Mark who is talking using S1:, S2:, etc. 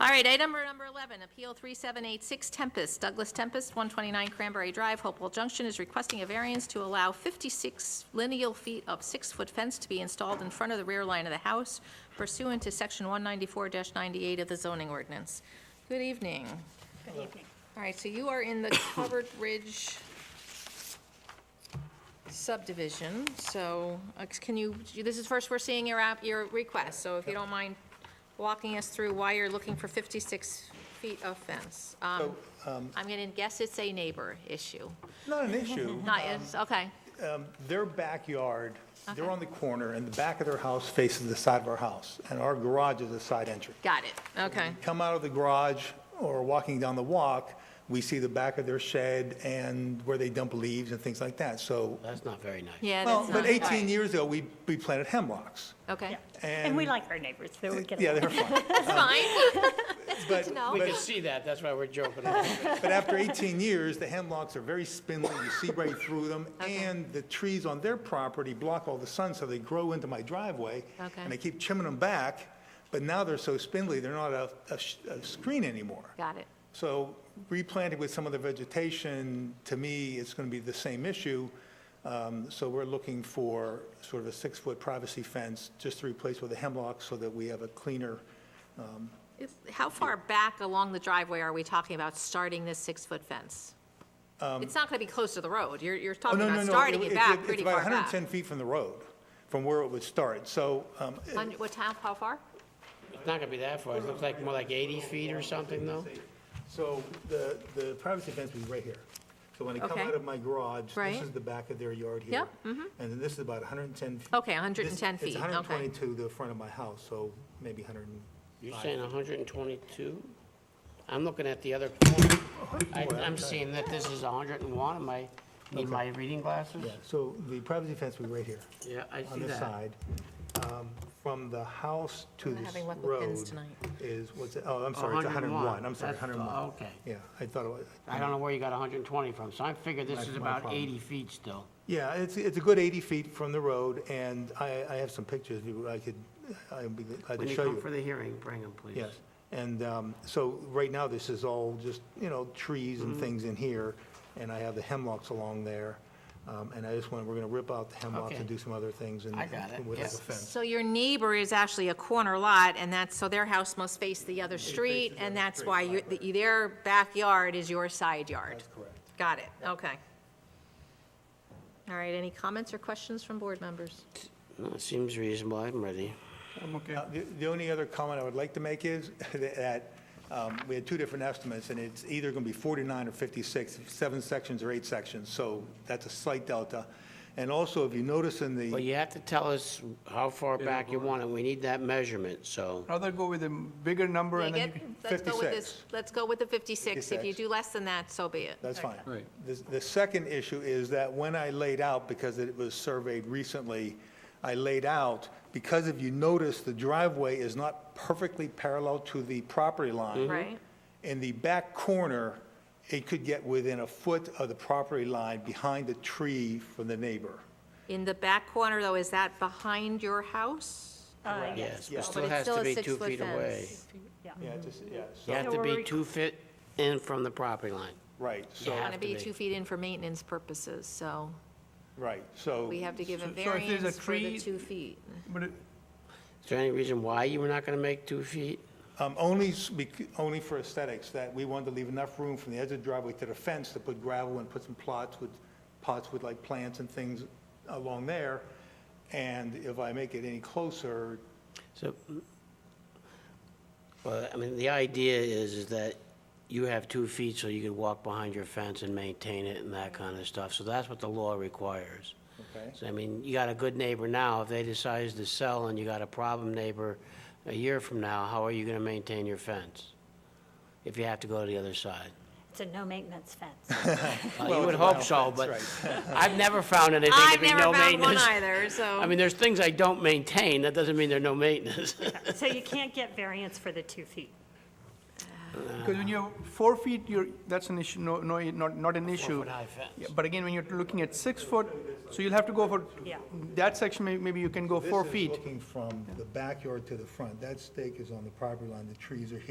S1: All right, item number number 11, Appeal 3786 Tempest, Douglas Tempest, 129 Cranberry Drive, Hopewell Junction, is requesting a variance to allow 56 lineal feet of six-foot fence to be installed in front of the rear line of the house pursuant to Section 194-98 of the zoning ordinance. Good evening. Good evening. All right, so you are in the Covered Ridge subdivision, so uh, can you, this is first we're seeing your app, your request, so if you don't mind walking us through why you're looking for 56 feet of fence. Um, I'm going to guess it's a neighbor issue.
S2: Not an issue.
S1: Not, it's, okay,
S2: Their backyard, they're
S1: Okay.
S2: on the corner, and the back of their house faces the side of our house, and our garage is a side entry.
S1: got it, okay,
S2: Come out of the garage or walking down the walk, we see the back of their shed and where they dump leaves and things like that, so.
S3: That's not very nice.
S1: yeah,
S2: Well,
S1: that's not.
S2: but 18
S1: right.
S2: years ago, we, we planted hemlocks.
S1: Okay,
S2: And-
S4: And we like our neighbors, so we get
S2: Yeah,
S4: along.
S2: they're fine.
S1: that's fine,
S2: But-
S1: to know.
S3: We
S2: but-
S3: can see that, that's why we're joking.
S2: But after 18 years, the hemlocks are very spindly, you see right through them,
S1: Okay.
S2: and the trees on their property block all the sun, so they grow into my driveway.
S1: Okay.
S2: And I keep trimming them back, but now they're so spindly, they're not a, a sh- a screen anymore.
S1: got it,
S2: So replanting with some other vegetation, to me, it's going to be the same issue. Um, So we're looking for sort of a six-foot privacy fence, just to replace with a hemlock, so that we have a cleaner,
S1: It's- How far back along the driveway are we talking about starting this six-foot fence? It's not going to be close to the road, you're, you're
S2: Um, Oh,
S1: talking
S2: no, no,
S1: about
S2: no.
S1: starting it
S2: it's-
S1: back pretty far
S2: It's about
S1: back.
S2: 110 feet from the road, from where it would start. So um,
S1: Hundred- What town, how far?
S3: It's not gonna be that far, it looks like more like 80 feet or something, though.
S2: So the, the privacy fence would be right here. So when I come
S1: Okay.
S2: out of my garage, this
S1: Right.
S2: is the back of their yard here.
S1: Yep, mm-hmm.
S2: And then this is about 110. feet.
S1: Okay, 110
S2: This-
S1: feet, okay.
S2: It's 122 to the front of my house, so maybe 100. and-
S3: You're saying 122? I'm looking at the other corner. I- I'm seeing that this is 101, am I, need my reading glasses?
S2: Yeah, so the privacy fence would be right here,
S3: Yeah, I
S2: on
S3: see
S2: this
S3: that.
S2: side. Um, From the house to
S1: not
S2: this
S1: having luck with pins
S2: road
S1: tonight. oh.
S2: is, what's it, oh, I'm sorry, it's 101. I'm sorry,
S3: That's-
S2: 101.
S3: Okay.
S2: Yeah, I thought it was.
S3: I don't know where you got 120 from, so I figured this
S2: That's
S3: is
S2: my
S3: about
S2: problem.
S3: 80 feet still.
S2: Yeah, it's, it's a good 80 feet from the road, and I, I have some pictures, if you- I could, I'd be glad
S3: When
S2: to
S3: you
S2: show
S3: come
S2: you.
S3: for the hearing, bring them, please.
S2: Yes, and um, so right now, this is all just, you know, trees
S3: Mm-hmm.
S2: and things in here, and I have the hemlocks along there, um, and I just want, we're going to rip out the hemlocks and
S3: Okay.
S2: do some other things and
S3: I got it,
S2: and with like a
S3: yes.
S2: fence.
S1: So your neighbor is actually a corner lot, and that's, so their house must face the other street, and that's why you- the- their backyard is your side yard?
S2: That's correct.
S1: Got it, okay. All right, any comments or questions from board members?
S3: No, it seems reasonable, I'm ready.
S2: Now, Uh, The the only other comment I would like to make is that um, we had two different estimates, and it's either going to be 49 or 56, seven sections or eight sections, so that's a slight delta. And also, if you notice in the.
S3: Well, you have to tell us how far back you want it, we need that measurement, so.
S5: Rather go with a bigger number and then you
S1: Dig it? Let's
S5: can,
S1: go with this,
S2: 56.
S1: let's go with the 56. If you
S2: 56.
S1: do less than that, so be it.
S2: That's fine. Right. The, the second issue is that when I laid out, because it was surveyed recently, I laid out, because if you notice, the driveway is not perfectly parallel to the property line.
S1: Right.
S2: In the back corner, it could get within a foot of the property line behind the tree from the neighbor.
S1: In the back corner, though, is that behind your house? Oh,
S4: uh, yeah,
S3: Yes, but
S1: But
S3: still
S1: it's
S3: has to
S1: a
S3: be two
S1: six-foot
S3: feet away.
S1: fence.
S2: Yeah, just, yeah,
S3: You have
S2: so,
S3: to
S4: we're
S3: be
S4: rec-
S3: two feet in from the property line.
S2: right, so,
S3: Yeah.
S1: Going to
S3: Have to
S1: be
S3: be.
S1: two feet in for maintenance purposes, so
S2: right, so.
S1: we have to give a
S5: So- so if there's a
S1: variance for the
S5: tree-
S1: two feet.
S5: but it-
S3: Is there any reason why you were not going to make two feet?
S2: Um, Only, s- bec- only for aesthetics, that we wanted to leave enough room from the edge of the driveway to the fence to put gravel and put some plots with, pots with like plants and things along there. And if I make it any closer,
S3: So, well, I mean, the idea is, is that you have two feet so you can walk behind your fence and maintain it and that kind of stuff. So that's what the law requires.
S2: okay?
S3: So, I mean, you got a good neighbor now. If they decide to sell and you got a problem neighbor a year from now, how are you going to maintain your fence? If you have to go to the other side?
S4: it's a no maintenance fence.
S3: Well,
S2: Well,
S3: You would
S2: it's a
S3: hope so, but
S2: balance,
S3: I've never found anything to
S1: I've
S3: be
S1: never
S3: no
S1: found one
S3: maintenance.
S1: either, so.
S3: I mean, there's things I don't maintain, that doesn't mean they're no maintenance.
S4: So you can't get variance for the two feet.
S5: because when you have four feet, you're, that's an issue, no, no, not, not an issue.
S3: Four-foot high fence.
S5: Yeah, But again, when you're looking at six foot, so you'll have to go for,
S4: Yeah.
S5: that section, may- maybe you can go four
S2: This is
S5: feet.
S2: looking from the backyard to the front. That stake is on the property line, the trees are here.